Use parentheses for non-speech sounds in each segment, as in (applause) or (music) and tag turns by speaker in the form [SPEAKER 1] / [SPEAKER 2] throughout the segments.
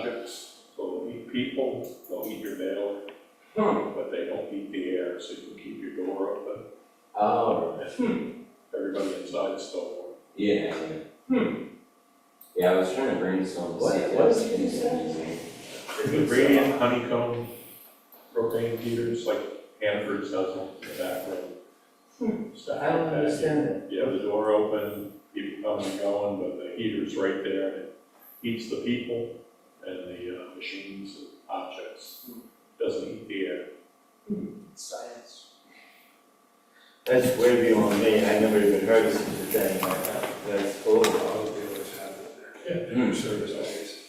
[SPEAKER 1] objects, they'll eat people, they'll eat your mail,
[SPEAKER 2] Hmm.
[SPEAKER 1] but they don't eat the air, so you can keep your door open.
[SPEAKER 2] Oh,
[SPEAKER 3] Hmm.
[SPEAKER 1] and Everybody inside is still warm.
[SPEAKER 2] yeah, yeah.
[SPEAKER 1] Hmm.
[SPEAKER 2] Yeah, I was trying to brainstorm to
[SPEAKER 3] What-
[SPEAKER 2] see if
[SPEAKER 3] what
[SPEAKER 2] that was
[SPEAKER 3] did you say?
[SPEAKER 2] confusing.
[SPEAKER 1] The radiant honeycomb propane heaters, like Hannaford's does one in the back room. Stack
[SPEAKER 3] Hmm. I don't
[SPEAKER 1] like that, you-
[SPEAKER 3] understand that.
[SPEAKER 1] You have the door open, people coming and going, but the heater's right there and it heats the people and the uh, machines and objects.
[SPEAKER 3] Hmm.
[SPEAKER 1] Doesn't heat the air.
[SPEAKER 3] Science.
[SPEAKER 4] That's way beyond me, I never even heard of such a thing like that, that's cool.
[SPEAKER 5] Auto dealers have it there.
[SPEAKER 2] Hmm.
[SPEAKER 5] Yeah, service always.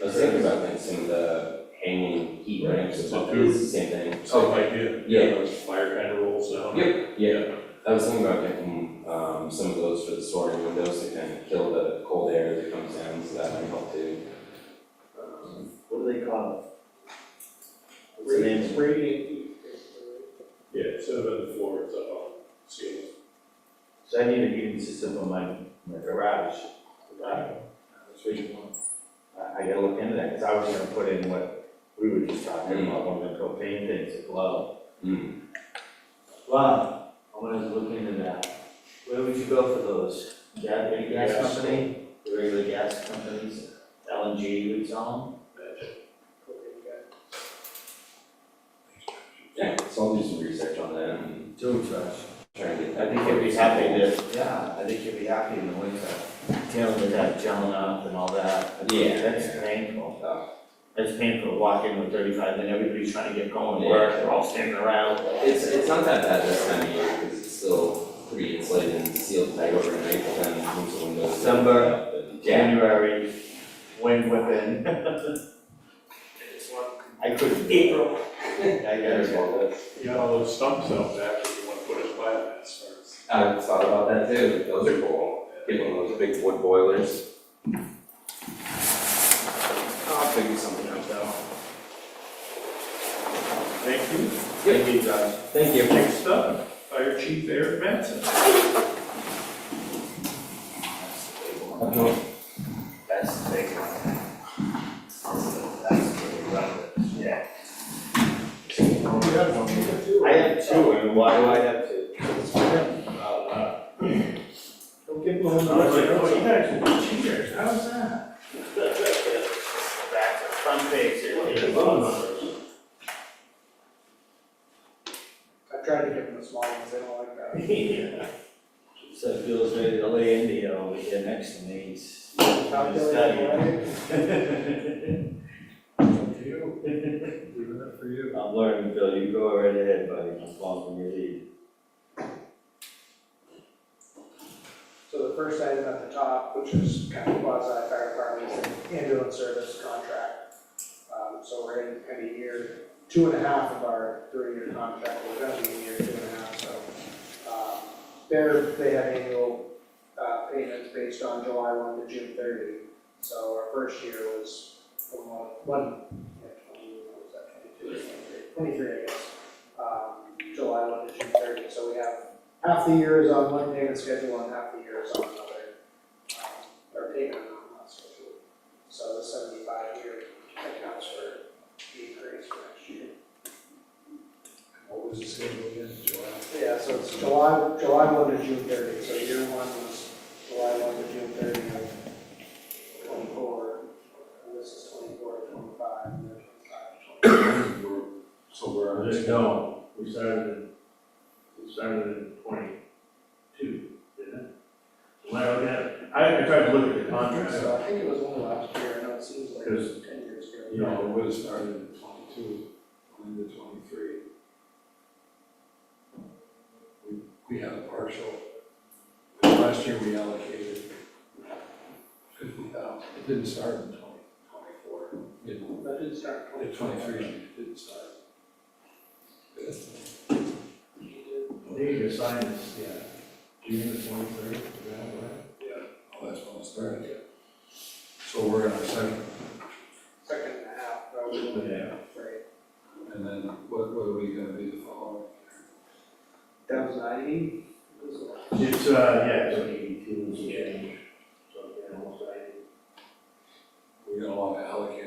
[SPEAKER 2] I was thinking about that, some of the hanging heat ramps and stuff,
[SPEAKER 1] Right, Oh. so
[SPEAKER 2] it's the same thing.
[SPEAKER 1] Same idea.
[SPEAKER 2] Oh, yeah.
[SPEAKER 1] Those fire kind of rolls down.
[SPEAKER 2] Yep, yeah, I was thinking about getting, um, some of those for the sorting windows to kind of kill the cold air that comes down, so that might help too. Um,
[SPEAKER 4] What do they call it? What's the name?
[SPEAKER 1] Yeah, instead of on the floor, it's up on the ceiling.
[SPEAKER 4] So I need a heating system for my, my garage. Uh, That's what you want. I, I gotta look into that, cause I was gonna put in what we were just talking about, one of the propane things, a glow.
[SPEAKER 2] hmm.
[SPEAKER 4] Wow, I wanted to look into that. Where would you go for those? Gas, big gas
[SPEAKER 1] Gas.
[SPEAKER 4] company, the regular gas companies, LNG, you would tell
[SPEAKER 2] yeah, so I'll do some research on that and
[SPEAKER 4] them? Too trash.
[SPEAKER 2] try and get.
[SPEAKER 4] I think you'd be happy to, yeah, I think you'd be happy in the winter, dealing with that gelling up and all that. I think
[SPEAKER 2] Yeah.
[SPEAKER 4] That's painful.
[SPEAKER 2] Uh,
[SPEAKER 4] That's painful, walking with thirty-five, then everybody's trying to get going to
[SPEAKER 2] Yeah.
[SPEAKER 4] work, they're all standing around.
[SPEAKER 2] It's, it's not that bad this time of year, because it's still pretty insulated and sealed tight overnight, but then once the windows.
[SPEAKER 4] December.
[SPEAKER 2] Yeah,
[SPEAKER 4] January, wind whipping. (laughs) I couldn't. April. I got it.
[SPEAKER 1] You got all those stumps out back that you want to put in flat as far as.
[SPEAKER 2] I thought about that too, those are cool, get one of those big wood boilers. I'll figure something out though.
[SPEAKER 1] Thank you.
[SPEAKER 4] Thank you, Josh.
[SPEAKER 2] Thank you.
[SPEAKER 1] Next up, Fire Chief Eric Matson.
[SPEAKER 4] That's the big one. That's the big one, yeah. I have two, and why do I have two? Uh,
[SPEAKER 3] Don't get
[SPEAKER 1] I
[SPEAKER 3] blown
[SPEAKER 1] was like,
[SPEAKER 3] away.
[SPEAKER 1] oh, you guys are cheaters, how's that?
[SPEAKER 4] Back to the front page here.
[SPEAKER 1] Look at the phone numbers.
[SPEAKER 3] I tried to give them the small ones, they don't like that.
[SPEAKER 4] So Bill's ready to lay India over here next to me, he's.
[SPEAKER 3] (laughs) Calculator, right?
[SPEAKER 4] studying.
[SPEAKER 1] (laughs)
[SPEAKER 3] Up to you.
[SPEAKER 1] Leaving it for (coughs)
[SPEAKER 2] (coughs)
[SPEAKER 1] you.
[SPEAKER 4] I'm learning, Bill, you go right ahead, buddy, I'm following your lead.
[SPEAKER 3] So the first item at the top, which is kind of quasi fire department, is the ambulance service contract. Um, so we're in kind of year, two and a half of our three-year contract, we're gonna be in year two and a half, so. um, They're, they have annual, uh, payments based on July one to June thirty. So our first year was from one, one, yeah, twenty, what was that, twenty-two, twenty-three, twenty-three, I guess. Um, July one to June thirty, so we have half the year is on one payment schedule and half the year is on another, um, or payment on one schedule. So the seventy-five year accounts for the increase for next year.
[SPEAKER 5] What was the schedule again,
[SPEAKER 2] (coughs)
[SPEAKER 5] July?
[SPEAKER 3] Yeah, so it's July, July one to June thirty, so year one was July one to June thirty of twenty-four, and this is twenty-four to twenty-five, and then twenty-five to twenty-eight.
[SPEAKER 5] So we're on this.
[SPEAKER 6] No, we started in, we started in twenty-two, didn't it? When I look at it, I, I tried to look at the contract,
[SPEAKER 3] So I think it was only last year, I know it seems like
[SPEAKER 6] Because-
[SPEAKER 3] ten years ago.
[SPEAKER 6] you know,
[SPEAKER 5] No, it would have started in twenty-two, went into twenty-three. We, we had a partial, last year we allocated fifty thousand, it didn't start in twenty, twenty-four, it didn't,
[SPEAKER 3] That did start in
[SPEAKER 5] at
[SPEAKER 3] 2023.
[SPEAKER 5] twenty-three, it didn't start.
[SPEAKER 6] they just signed this, yeah, June the twenty-third, right?
[SPEAKER 5] Yeah. Oh, that's when it started. So we're in our second,
[SPEAKER 3] Second and a half, probably,
[SPEAKER 5] Yeah.
[SPEAKER 3] right?
[SPEAKER 5] and then what, what are we gonna be the following?
[SPEAKER 3] That was ninety?
[SPEAKER 6] It's, uh, yeah, it's like eighty-two, and some change. so, yeah, almost ninety.
[SPEAKER 5] We're gonna wanna allocate